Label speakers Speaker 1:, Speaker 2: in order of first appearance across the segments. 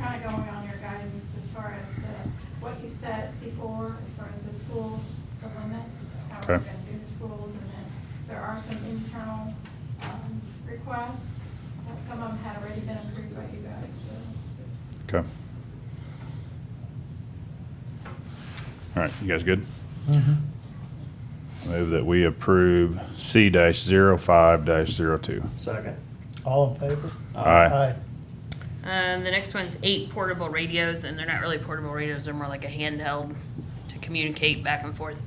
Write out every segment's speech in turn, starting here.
Speaker 1: kind of going on your guidance as far as the, what you said before, as far as the schools, the limits, how we're
Speaker 2: Okay.
Speaker 1: going to do the schools, and then there are some internal um, requests, but some of them had already been approved by you guys, so.
Speaker 2: Okay. All right, you guys good?
Speaker 3: Mm-hmm.
Speaker 2: I Move that we approve C dash zero five dash zero two.
Speaker 4: Second.
Speaker 3: All in favor?
Speaker 2: Aye.
Speaker 5: Um, the next one's eight portable radios, and they're not really portable radios, they're more like a handheld to communicate back and forth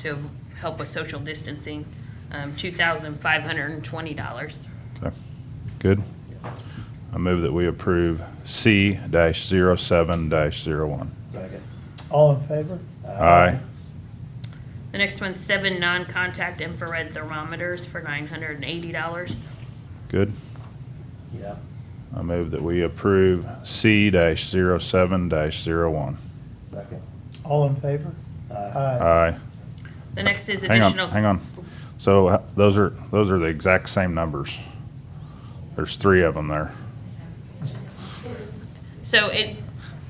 Speaker 5: to help with social distancing. Um, two thousand five hundred and twenty dollars.
Speaker 2: Okay, good. I move that we approve C dash zero seven dash zero one.
Speaker 4: Second.
Speaker 3: All in favor?
Speaker 2: Aye.
Speaker 5: The next one's seven non-contact infrared thermometers for nine hundred and eighty dollars.
Speaker 2: Good.
Speaker 4: Yeah.
Speaker 2: I move that we approve C dash zero seven dash zero one.
Speaker 4: Second.
Speaker 3: All in favor?
Speaker 2: Aye.
Speaker 5: The next is
Speaker 2: Hang on,
Speaker 5: additional.
Speaker 2: hang on. So uh, those are, those are the exact same numbers. There's three of them there.
Speaker 5: So it,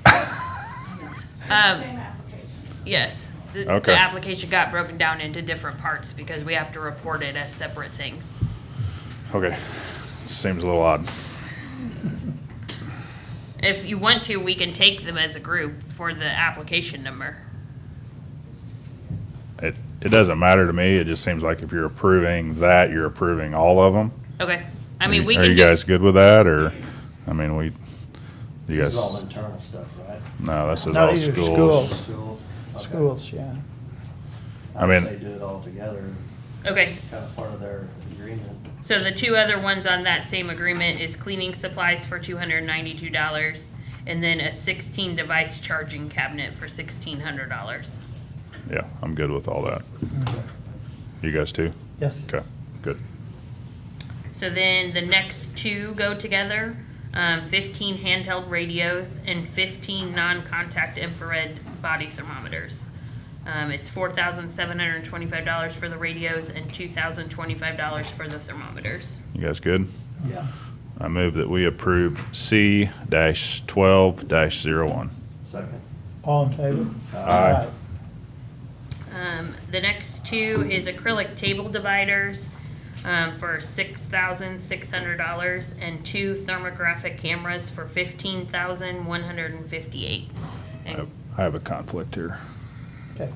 Speaker 5: um,
Speaker 1: Same application.
Speaker 5: yes, the,
Speaker 2: Okay.
Speaker 5: the application got broken down into different parts because we have to report it as separate things.
Speaker 2: Okay, seems a little odd.
Speaker 5: If you want to, we can take them as a group for the application number.
Speaker 2: It, it doesn't matter to me, it just seems like if you're approving that, you're approving all of them.
Speaker 5: Okay, I mean, we
Speaker 2: Are
Speaker 5: can
Speaker 2: you
Speaker 5: do,
Speaker 2: guys good with that, or, I mean, we, you
Speaker 4: This is all
Speaker 2: guys,
Speaker 4: internal stuff, right?
Speaker 2: no, this is
Speaker 3: No,
Speaker 2: all
Speaker 3: these are
Speaker 2: schools.
Speaker 4: Schools? Okay.
Speaker 3: Schools, yeah.
Speaker 2: I mean-
Speaker 4: I'd say do it all together,
Speaker 5: okay.
Speaker 4: kind of part of their agreement.
Speaker 5: So the two other ones on that same agreement is cleaning supplies for two hundred ninety-two dollars and then a sixteen device charging cabinet for sixteen hundred dollars.
Speaker 2: Yeah, I'm good with all that. You guys too?
Speaker 3: Yes.
Speaker 2: Okay, good.
Speaker 5: So then the next two go together, um, fifteen handheld radios and fifteen non-contact infrared body thermometers. Um, it's four thousand seven hundred and twenty-five dollars for the radios and two thousand twenty-five dollars for the thermometers.
Speaker 2: You guys good?
Speaker 4: Yeah.
Speaker 2: I move that we approve C dash twelve dash zero one.
Speaker 4: Second.
Speaker 3: All in favor?
Speaker 2: Aye.
Speaker 5: Um, the next two is acrylic table dividers, um, for six thousand six hundred dollars and two thermographic cameras for fifteen thousand one hundred and fifty-eight. And
Speaker 2: I have a conflict here.
Speaker 3: Okay,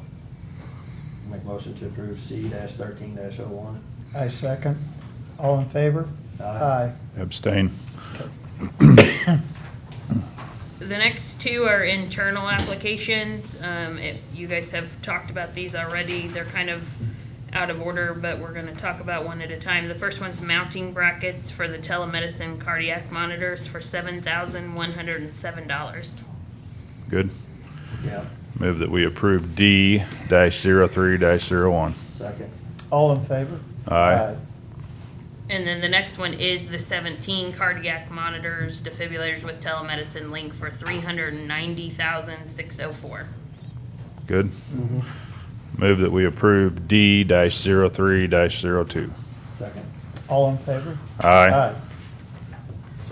Speaker 4: Make motion to approve C dash thirteen dash oh one.
Speaker 3: I second. All in favor?
Speaker 4: Aye.
Speaker 2: Abstain.
Speaker 5: The next two are internal applications. Um, it, you guys have talked about these already. They're kind of out of order, but we're gonna talk about one at a time. The first one's mounting brackets for the telemedicine cardiac monitors for seven thousand one hundred and seven dollars.
Speaker 2: Good.
Speaker 4: Yeah.
Speaker 2: Move that we approve D dash zero three dash zero one.
Speaker 4: Second.
Speaker 3: All in favor?
Speaker 2: Aye.
Speaker 5: And then the next one is the seventeen cardiac monitors, defibrillators with telemedicine link for three hundred and ninety thousand six oh four.
Speaker 2: Good. Move that we approve D dash zero three dash zero two.
Speaker 4: Second.
Speaker 3: All in favor?
Speaker 2: Aye.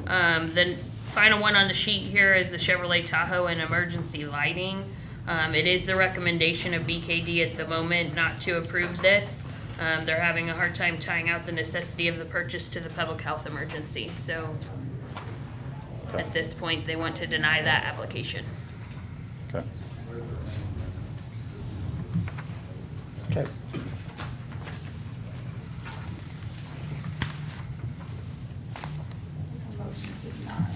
Speaker 5: Um, the final one on the sheet here is the Chevrolet Tahoe and emergency lighting. Um, it is the recommendation of BKD at the moment not to approve this. Um, they're having a hard time tying out the necessity of the purchase to the public health emergency, so at this point, they want to deny that application.
Speaker 2: Okay.
Speaker 3: Okay,
Speaker 1: Motion to deny.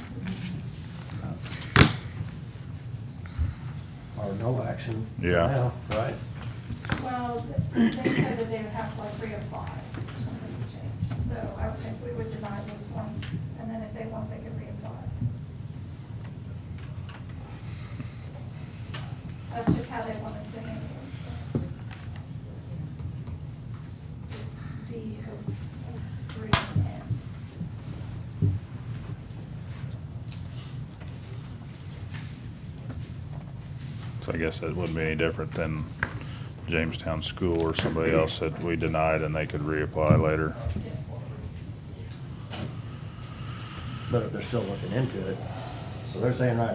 Speaker 4: Or no action.
Speaker 2: Yeah.
Speaker 4: Now, right?
Speaker 1: Well, they said that they would have to like reapply or something to change, so I would think we would deny this one, and then if they want, they could reapply. That's just how they wanted to handle it. so. It's D O three and ten.
Speaker 2: So I guess that wouldn't be any different than Jamestown School or somebody else that we denied and they could reapply later.
Speaker 4: But if they're still looking into it, So they're saying right